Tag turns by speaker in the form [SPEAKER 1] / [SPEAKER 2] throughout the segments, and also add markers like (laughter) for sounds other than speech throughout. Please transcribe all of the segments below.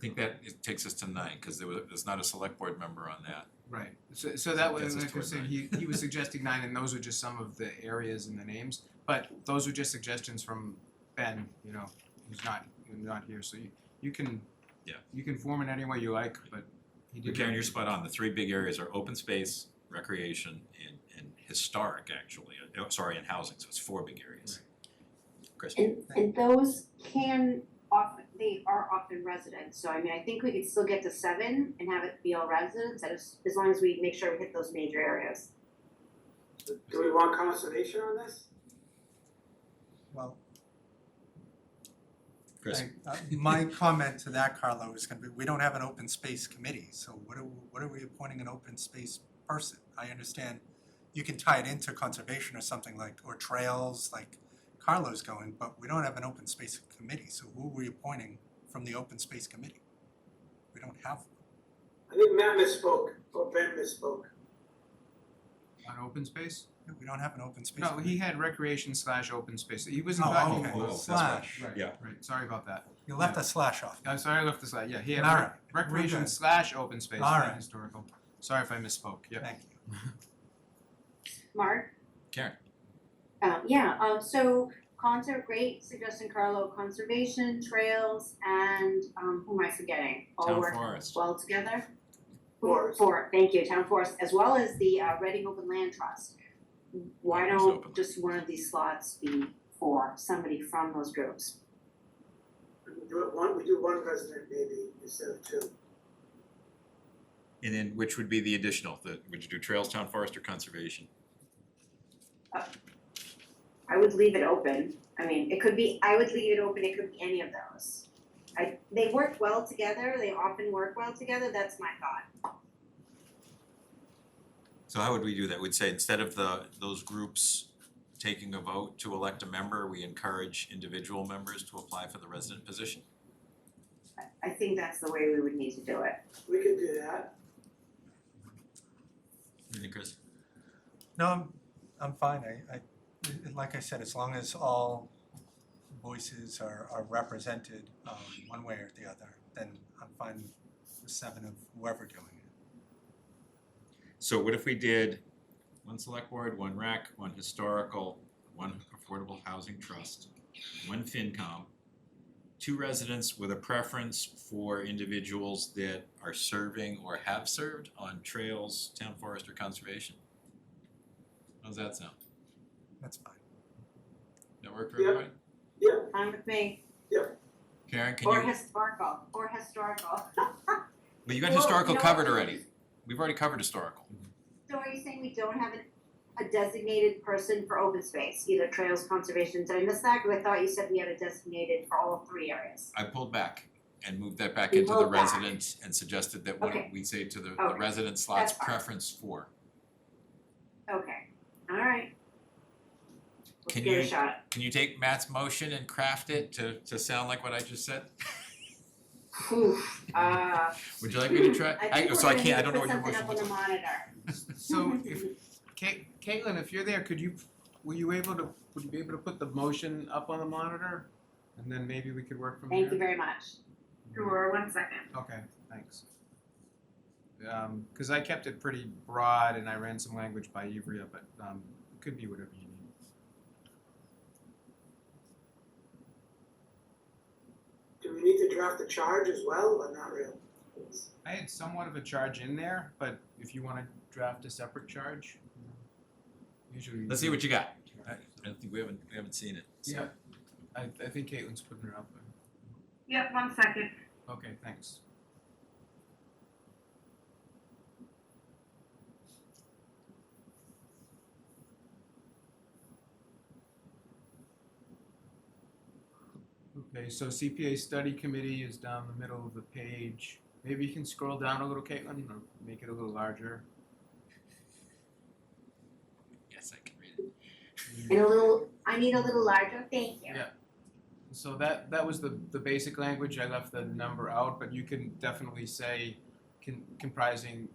[SPEAKER 1] think that it takes us to nine, cause there was, there's not a select board member on that.
[SPEAKER 2] Right, so so that was,
[SPEAKER 1] Gets us
[SPEAKER 2] like I
[SPEAKER 1] toward
[SPEAKER 2] said,
[SPEAKER 1] nine.
[SPEAKER 2] he he
[SPEAKER 1] (laughs)
[SPEAKER 2] was suggesting nine and those are just some of the areas and the names, but those are just suggestions from Ben, you know, who's not, who's not here, so you you can
[SPEAKER 1] Yeah.
[SPEAKER 2] you can form it any way you like, but he
[SPEAKER 1] But
[SPEAKER 2] did.
[SPEAKER 1] Karen, you're spot on, the three big areas are open space, recreation, and and historic actually, uh, oh, sorry, and housing, so it's four big areas. Chris?
[SPEAKER 3] And and those can often, they are often residents, so I mean, I think we could still get to seven and have it be all residents, as as long as we make sure we hit those major areas.
[SPEAKER 4] Do we want consternation on this?
[SPEAKER 5] Well,
[SPEAKER 1] Chris,
[SPEAKER 5] I- uh, my comment to that, Carlo, is gonna be, we don't have an open space committee, so what are, what are we appointing an open space person? I understand you can tie it into conservation or something like, or trails, like Carlo's going, but we don't have an open space committee, so who are we appointing from the open space committee? We don't have,
[SPEAKER 4] I think Matt misspoke, or Ben misspoke.
[SPEAKER 2] On open space?
[SPEAKER 5] we don't have an open space
[SPEAKER 2] No,
[SPEAKER 5] committee.
[SPEAKER 2] he had recreation slash open space, he wasn't
[SPEAKER 5] Oh,
[SPEAKER 2] talking.
[SPEAKER 5] okay.
[SPEAKER 1] oh, that's
[SPEAKER 5] slash.
[SPEAKER 2] Right,
[SPEAKER 1] Yeah.
[SPEAKER 2] right, sorry about that,
[SPEAKER 5] You left a slash off.
[SPEAKER 2] I'm sorry I left this out, yeah, he had
[SPEAKER 5] All
[SPEAKER 2] rec-
[SPEAKER 5] right, we're
[SPEAKER 2] recreation
[SPEAKER 5] good.
[SPEAKER 2] slash open space,
[SPEAKER 5] All
[SPEAKER 2] not
[SPEAKER 5] right.
[SPEAKER 2] historical, sorry if I misspoke,
[SPEAKER 1] (laughs)
[SPEAKER 2] yeah.
[SPEAKER 5] Thank you.
[SPEAKER 3] Mark?
[SPEAKER 1] Karen,
[SPEAKER 3] Um, yeah, um, so concert, great suggestion, Carlo, conservation, trails, and, um, who am I forgetting? All
[SPEAKER 1] Town
[SPEAKER 3] work
[SPEAKER 1] Forest.
[SPEAKER 3] well together?
[SPEAKER 4] Forest.
[SPEAKER 3] For, thank you, town forest, as well as the, uh, Reading Open Land Trust. Why
[SPEAKER 1] Reading's
[SPEAKER 3] don't
[SPEAKER 1] open.
[SPEAKER 3] just one of these slots be for somebody from those groups?
[SPEAKER 4] We do it one, we do one resident maybe instead of two.
[SPEAKER 1] and then which would be the additional, the, would you do trails, town forest or conservation?
[SPEAKER 3] I would leave it open, I mean, it could be, I would leave it open, it could be any of those. I, they work well together, they often work well together, that's my thought.
[SPEAKER 1] So how would we do that? We'd say instead of the, those groups taking a vote to elect a member, we encourage individual members to apply for the resident position?
[SPEAKER 3] I- I think that's the way we would need to do it.
[SPEAKER 4] We could do that.
[SPEAKER 1] What do you think, Chris?
[SPEAKER 5] No, I'm, I'm fine, I, I, i- like I said, as long as all voices are, are represented, um, one way or the other, then I'm fine with seven of whoever doing it.
[SPEAKER 1] So what if we did one select board, one rec, one historical, one affordable housing trust, one FinCom, two residents with a preference for individuals that are serving or have served on trails, town forest or conservation? How's that sound?
[SPEAKER 5] That's fine.
[SPEAKER 1] That work for
[SPEAKER 4] Yeah.
[SPEAKER 1] everybody?
[SPEAKER 4] Yeah,
[SPEAKER 3] Fine with me,
[SPEAKER 1] Karen, can you?
[SPEAKER 3] or historical, or historical.
[SPEAKER 1] But you got
[SPEAKER 3] Well,
[SPEAKER 1] historical
[SPEAKER 3] you know,
[SPEAKER 1] covered already. We've already covered historical.
[SPEAKER 3] So are you saying we don't have a, a designated person for open space, either trails, conservation, did I miss that? Cause I thought you said we had a designated for all three areas.
[SPEAKER 1] I pulled back and moved that back
[SPEAKER 3] You
[SPEAKER 1] into the
[SPEAKER 3] pulled back.
[SPEAKER 1] resident and suggested that
[SPEAKER 3] Okay.
[SPEAKER 1] what we say to the the
[SPEAKER 3] Okay.
[SPEAKER 1] resident slots
[SPEAKER 3] That's fine.
[SPEAKER 1] preference for.
[SPEAKER 3] Okay, alright. Let's
[SPEAKER 1] Can
[SPEAKER 3] give it
[SPEAKER 1] you-
[SPEAKER 3] a shot.
[SPEAKER 1] Can you take Matt's motion and craft it to to sound like what I just said?
[SPEAKER 3] Oof, uh.
[SPEAKER 1] Would you like me to try?
[SPEAKER 3] I think we're
[SPEAKER 1] so I
[SPEAKER 3] gonna need
[SPEAKER 1] can't, I
[SPEAKER 3] to
[SPEAKER 1] don't know
[SPEAKER 3] put
[SPEAKER 1] what your
[SPEAKER 3] something
[SPEAKER 1] motion
[SPEAKER 3] up on
[SPEAKER 1] was.
[SPEAKER 3] the
[SPEAKER 2] So
[SPEAKER 3] monitor.
[SPEAKER 2] if Ca- Caitlin, if you're there, could you, were you able to, would you be able to put the motion up on the monitor? And then maybe we could work from there?
[SPEAKER 3] Thank you very much. Sure, one second.
[SPEAKER 2] Okay, thanks. Um, cause I kept it pretty broad and I ran some language by Ivrea, but, um, it could be whatever you need.
[SPEAKER 4] do we need to draft the charge as well or not really?
[SPEAKER 2] I had somewhat of a charge in there, but if you wanna draft a separate charge, you know, usually.
[SPEAKER 1] Mm-hmm. Let's see what you got. I don't think we haven't, we haven't seen it, so.
[SPEAKER 2] Yeah, I, I think Caitlin's putting her up there.
[SPEAKER 3] Yep, one second.
[SPEAKER 2] Okay, thanks. Okay, so CPA study committee is down the middle of the page. Maybe you can scroll down a little, Caitlin, or make it a little larger.
[SPEAKER 1] Yes, I can read it.
[SPEAKER 3] And a little, I need a little larger, thank you.
[SPEAKER 2] Yeah. So that that was the the basic language. I left the number out, but you can definitely say con- comprising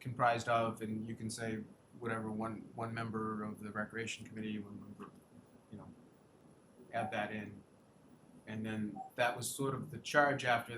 [SPEAKER 2] comprised of, and you can say whatever one one member of the recreation committee, one member, you know, add that in, and then that was sort of the charge after